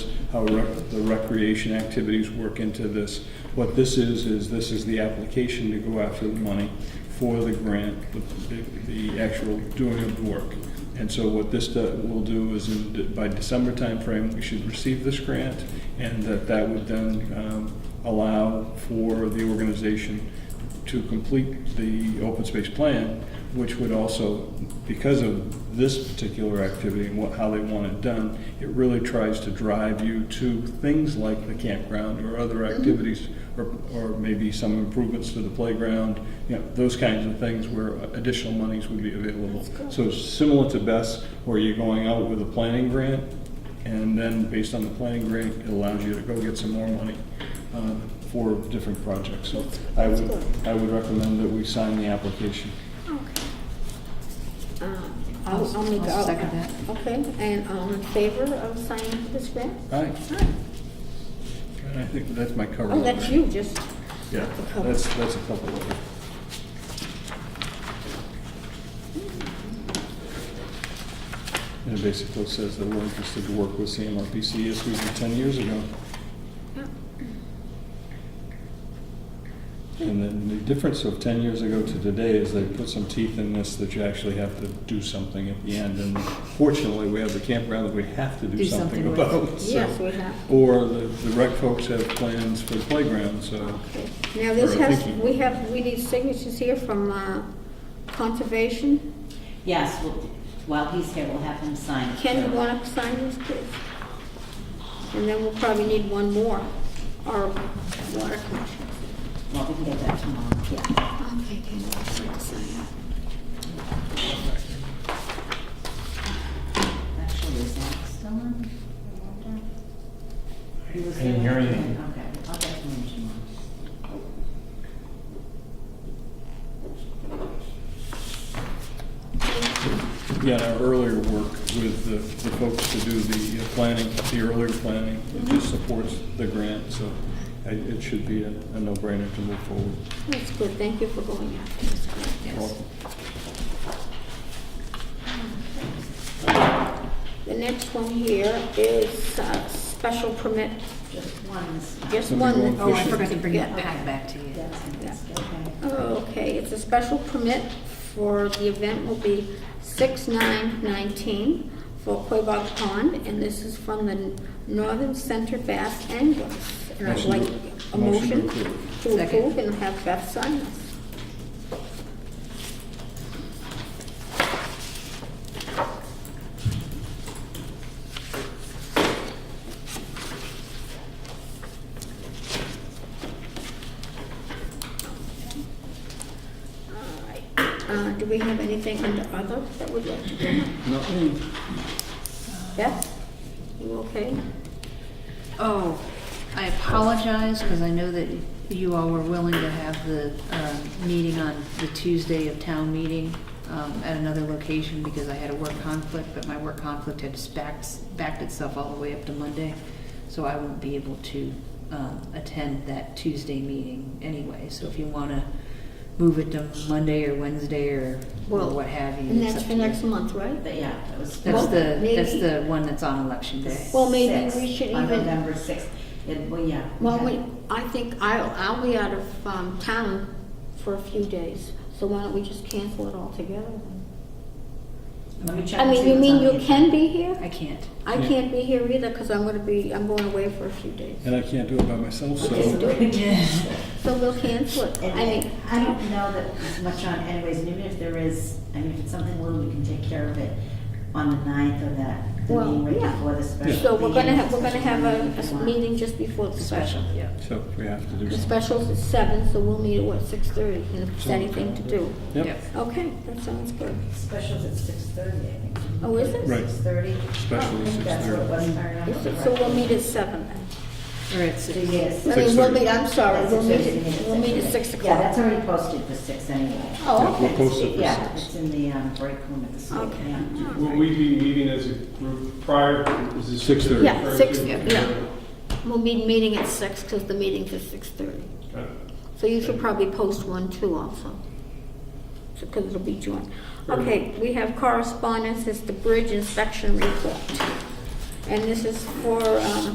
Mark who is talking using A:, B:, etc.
A: how rec- the recreation activities work into this. What this is, is this is the application to go after the money for the grant, the, the- the actual doing of work. And so what this do- will do is in- by December timeframe, we should receive this grant and that that would then um, allow for the organization to complete the open space plan, which would also, because of this particular activity and what, how they want it done, it really tries to drive you to things like the campground or other activities, or, or maybe some improvements to the playground, you know, those kinds of things where additional monies would be available. So it's similar to BES, where you're going out with a planning grant, and then based on the planning grant, it allows you to go get some more money uh, for different projects. So I would, I would recommend that we sign the application.
B: Um,
C: I'll-
B: I'll make
C: I'll
B: a-
C: second that.
B: Okay, and all in favor of signing this grant?
A: All right,
B: All right.
A: and I think that's my cover.
B: Oh, that's
A: letter.
B: you, just,
A: Yeah, that's, that's a couple of them. And it basically says that we're interested to work with CMRPC as we did 10 years ago. And then the difference of 10 years ago to today is they put some teeth in this that you actually have to do something at the end. And fortunately, we have the campground that we have to do
C: Do
A: something
C: something with.
A: about. so-
B: yes, we have.
A: Or the the rec folks have plans for the playground, so.
B: Okay. Now, this
A: Or
B: has,
A: thinking.
B: we have, we need signatures here from uh, Conservation.
D: Yes, we'll- while he's here, we'll have him sign.
B: Ken, you want to sign this, please? And then we'll probably need one more, our water commission.
D: Well, we can get that tomorrow, yeah.
B: Okay, Ken, I'd like to sign that.
D: Actually, is that still on? I wonder. He was
E: I didn't
D: there.
E: hear anything.
D: Okay, I'll get to him tomorrow.
A: Yeah, and our earlier work with the the folks to do the uh, planning, the earlier planning, it just supports the grant, so I- it should be a a no-brainer to move forward.
B: That's good, thank you for going after this grant.
A: Welcome.
B: The next one here is uh, special permit,
D: Just one. is-
B: just
A: Let me
B: one.
A: go
C: Oh,
A: on
C: I
A: fishing.
C: forgot to bring that
B: Yeah.
C: back, back to you.
D: Yes, yes, okay.
B: Okay, it's a special permit for, the event will be 6/9/19 for Quabog Pond, and this is from the Northern Center Bass Anglers. And I'd
A: Motion
B: like
A: to-
B: a
A: motion to
B: motion
A: approve.
B: to
C: Second.
B: approve and have Beth sign this. All right. Uh, Do we have anything under other that we'd like to do?
A: No,
B: Beth, you okay?
C: Oh, I apologize, because I know that you all were willing to have the um, meeting on the Tuesday of town meeting um, at another location, because I had a work conflict, but my work conflict had backed, backed itself all the way up to Monday, so I won't be able to um, attend that Tuesday meeting anyway. So if you want to move it to Monday or Wednesday or or what have you.
B: And
C: it's
B: that's
C: up
B: for
C: to you.
B: next month, right?
D: But yeah, that was.
C: That's
B: Well,
C: the, that's
B: maybe-
C: the one that's on election day.
B: Well, maybe
D: sixth,
B: we should
D: On
B: even-
D: November sixth, It- well, yeah.
B: Well,
D: okay.
B: we, I think I'll, I'll be out of um, town for a few days, so why don't we just cancel it altogether? then?
D: Let me check.
B: I
D: and
B: mean,
D: see
B: you
D: what's
B: mean
D: on
B: you
D: the
B: can be here?
C: I can't.
B: I
A: Yeah.
B: can't be here either, because I'm gonna be, I'm going away for a few days.
A: And I can't do it by myself,
D: Okay,
A: so.
D: so we can
B: So we'll cancel it. I
D: And
B: mean,
D: I don't know that there's much on anyways, and even if there is, I mean, if it's something little, we can take care of it on the ninth of that, the
B: Well,
D: meeting right
B: yeah.
D: before the special.
B: so we're gonna
D: meeting,
B: have, we're gonna
D: special
B: have a-
D: if you
B: a
D: want.
B: meeting just before the special.
C: yeah.
A: So we have to do
B: The
A: it.
B: special's at seven, so we'll meet at what, six thirty, and if there's
A: Sounds
B: anything to
A: good.
B: do.
A: Yep,
B: Okay, that sounds good.
D: Special's at six thirty, I think.
B: Oh, is it?
A: Right.
D: Six thirty.
A: Special is
D: That's what it
A: 6:30.
D: was, if I remember
B: Is it- So we'll
D: correctly.
B: meet at seven then.
C: Or it's,
D: So yes.
B: I mean, we'll
A: 6:30.
B: meet, I'm sorry,
D: That's
B: we'll meet,
D: Tuesday,
B: at- we'll meet at six
D: Yeah,
B: o'clock.
D: that's already posted for six anyway.
B: Oh,
A: Yeah, we'll
B: okay.
A: post it for
D: Yeah,
A: six.
D: it's in the um, break room at the school,
B: Okay.
D: yeah.
E: Will we be meeting as a group prior? is this-
A: 6:30.
B: Yeah, six, yeah. We'll be meeting at six, because the meeting's at six thirty.
E: Okay.
B: So you should probably post one too also, because it'll be joint. Okay, we have correspondence, it's the bridge inspection report. And this is for, um,